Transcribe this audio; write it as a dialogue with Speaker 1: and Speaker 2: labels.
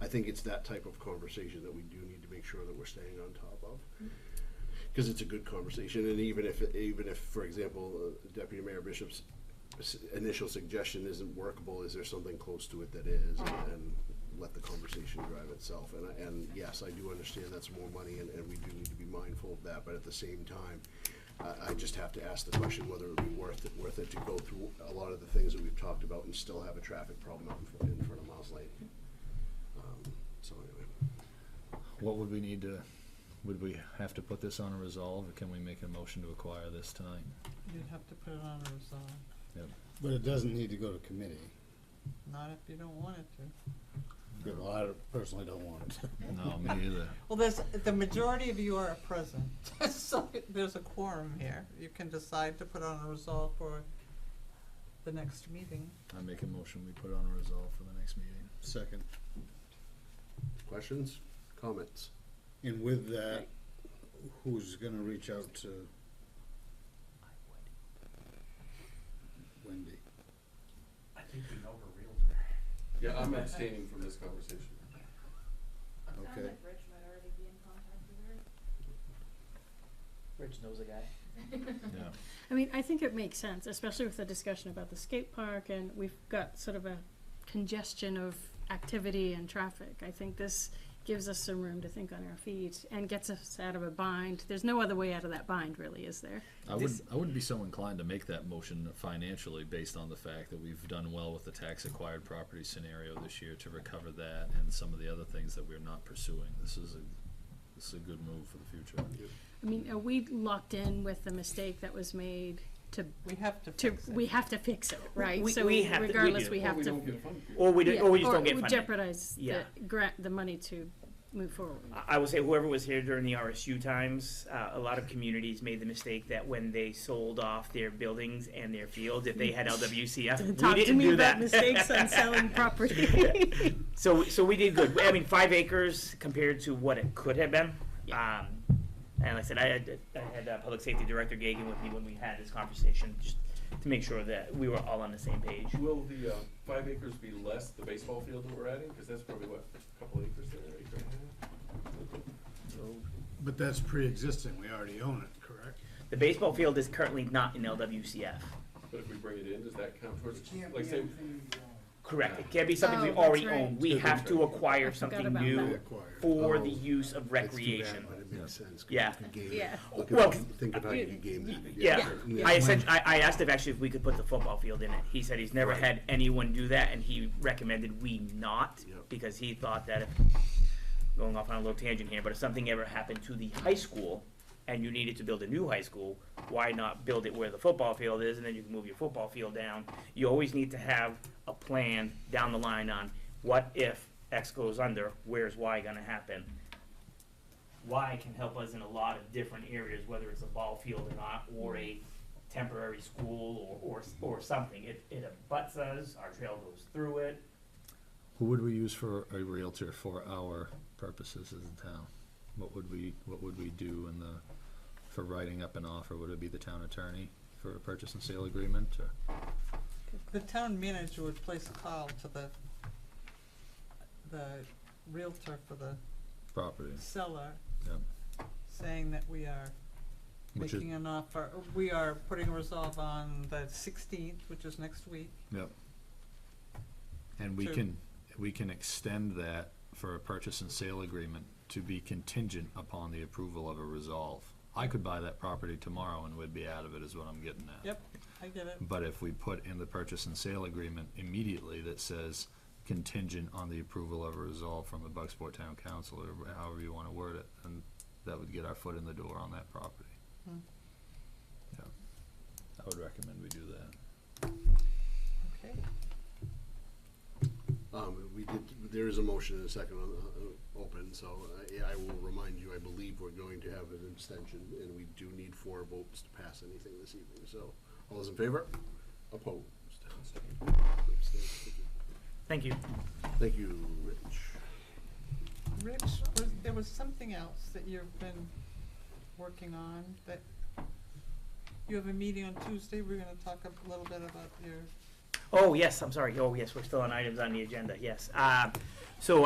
Speaker 1: I think it's that type of conversation that we do need to make sure that we're staying on top of. Because it's a good conversation, and even if, even if, for example, uh, Deputy Mayor Bishop's s- initial suggestion isn't workable, is there something close to it that is? and- And let the conversation drive itself. And, I- and yes, I do understand that's more money, and, and we do need to be mindful of that, but at the same time, I, I just have to ask the question whether it would be worth it, worth it to go through a lot of the things that we've talked about and still have a traffic problem out in fr- in front of Miles Lane. Um, So anyway,
Speaker 2: What would we need to, would we have to put this on a resolve, or can we make a motion to acquire this tonight?
Speaker 3: You'd have to put it on uh, a resolve,
Speaker 4: But it doesn't need to go to committee.
Speaker 3: not if you don't want it to.
Speaker 4: Well, I personally don't want it.
Speaker 2: No, me either.
Speaker 3: Well, there's, the majority of you are present, so there's a quorum here. You can decide to put on a resolve for the next meeting.
Speaker 2: I make a motion, we put it on a resolve for the next meeting.
Speaker 4: Second.
Speaker 1: questions, comments?
Speaker 4: And with that, who's gonna reach out to? Wendy.
Speaker 5: I think we know her realtor.
Speaker 6: Yeah, I'm abstaining from this conversation.
Speaker 4: Okay.
Speaker 7: Sounds like Rich might already be in contact with her.
Speaker 5: Rich knows a guy.
Speaker 2: Yeah.
Speaker 8: I mean, I think it makes sense, especially with the discussion about the skate park and we've got sort of a congestion of activity and traffic. I think this gives us some room to think on our feet and gets us out of a bind. There's no other way out of that bind really, is there?
Speaker 2: I would, I wouldn't be so inclined to make that motion financially based on the fact that we've done well with the tax acquired property scenario this year to recover that and some of the other things that we're not pursuing. This is a, this is a good move for the future.
Speaker 8: I mean, are we locked in with the mistake that was made to,
Speaker 3: We have to
Speaker 8: to,
Speaker 3: fix it.
Speaker 8: we have to fix it, right?
Speaker 9: We-
Speaker 8: So
Speaker 9: we have to- we
Speaker 8: regardless,
Speaker 9: do.
Speaker 8: we
Speaker 6: Or
Speaker 8: have
Speaker 6: we
Speaker 8: to.
Speaker 6: don't get funded.
Speaker 9: Or we, don't-
Speaker 8: yeah,
Speaker 9: or we just don't get
Speaker 8: Or we
Speaker 9: funded.
Speaker 8: jeopardize the
Speaker 9: Yeah.
Speaker 8: grant, the money to move forward.
Speaker 9: I- I would say whoever was here during the RSU times, uh, a lot of communities made the mistake that when they sold off their buildings and their fields, if they had LWCF, we
Speaker 8: Talk to
Speaker 9: didn't
Speaker 8: me
Speaker 9: do
Speaker 8: about
Speaker 9: that.
Speaker 8: mistakes on selling property.
Speaker 9: So, so we did good. I mean, five acres compared to what it could have been. Um, and like I said, I had, I had uh, Public Safety Director Gagan with me when we had this conversation, just to make sure that we were all on the same page.
Speaker 6: Will the, uh, five acres be less the baseball field that we're adding? Cause that's probably what, a couple acres there, acre and a half?
Speaker 4: But that's pre-existing, we already own it, correct?
Speaker 9: The baseball field is currently not in LWCF.
Speaker 6: But if we bring it in, does that count towards,
Speaker 5: Can't be
Speaker 6: like say,
Speaker 5: anything you want.
Speaker 9: Correct. It can't be something we
Speaker 8: Oh, that's
Speaker 9: already
Speaker 8: right.
Speaker 9: own. We have to
Speaker 8: I
Speaker 9: acquire
Speaker 8: forgot
Speaker 9: something
Speaker 8: about
Speaker 9: new
Speaker 8: that.
Speaker 4: Acquired.
Speaker 9: for
Speaker 1: Oh,
Speaker 9: the use
Speaker 1: That's
Speaker 9: of
Speaker 1: too bad,
Speaker 9: recreation.
Speaker 1: But it makes sense. 'cause
Speaker 9: Yeah.
Speaker 1: you could game it.
Speaker 8: Yeah.
Speaker 1: Look
Speaker 9: Well,
Speaker 1: at,
Speaker 9: 'cause-
Speaker 1: think about how you game that.
Speaker 9: Yeah,
Speaker 1: Yeah.
Speaker 9: I said, I, I asked if actually if we could put the football field in it. He said he's never had anyone do that, and he recommended we not,
Speaker 1: Yep.
Speaker 9: because he thought that if, going off on a little tangent here, but if something ever happened to the high school, and you needed to build a new high school, why not build it where the football field is, and then you can move your football field down? You always need to have a plan down the line on what if X goes under, where's Y gonna happen? Y can help us in a lot of different areas, whether it's a ball field or not, or a temporary school or, or, or something. It, it abuts us, our trail goes through it.
Speaker 2: Who would we use for a realtor for our purposes as a town? What would we, what would we do in the, for writing up an offer? Would it be the town attorney for a purchase and sale agreement or?
Speaker 3: The town manager would place a call to the, the Realtor for the
Speaker 2: property,
Speaker 3: seller,
Speaker 2: yeah,
Speaker 3: saying that we are
Speaker 2: which is,
Speaker 3: making an offer, we are putting a resolve on the sixteenth, which is next week.
Speaker 2: yeah. And we
Speaker 3: Sure.
Speaker 2: can, we can extend that for a purchase and sale agreement to be contingent upon the approval of a resolve. I could buy that property tomorrow and we'd be out of it is what I'm getting at.
Speaker 3: Yep, I get it.
Speaker 2: But if we put in the purchase and sale agreement immediately that says contingent on the approval of a resolve from the Bucksport Town Council, or however you wanna word it, and that would get our foot in the door on that property.
Speaker 3: Hmm.
Speaker 2: Yeah, I would recommend we do that. Hmm.
Speaker 3: Okay.
Speaker 1: Um, we did, there is a motion and a second on, the- uh, open, so, uh, yeah, I will remind you, I believe we're going to have an abstention, and we do need four votes to pass anything this evening, so, all those in favor? Opposed? Abstained.
Speaker 9: Thank you.
Speaker 1: Thank you, Rich.
Speaker 3: Rich, was, there was something else that you've been working on that, you have a meeting on Tuesday, we're gonna talk a little bit about your
Speaker 9: Oh, yes, I'm sorry. Oh, yes, we're still on items on the agenda, yes. Uh, so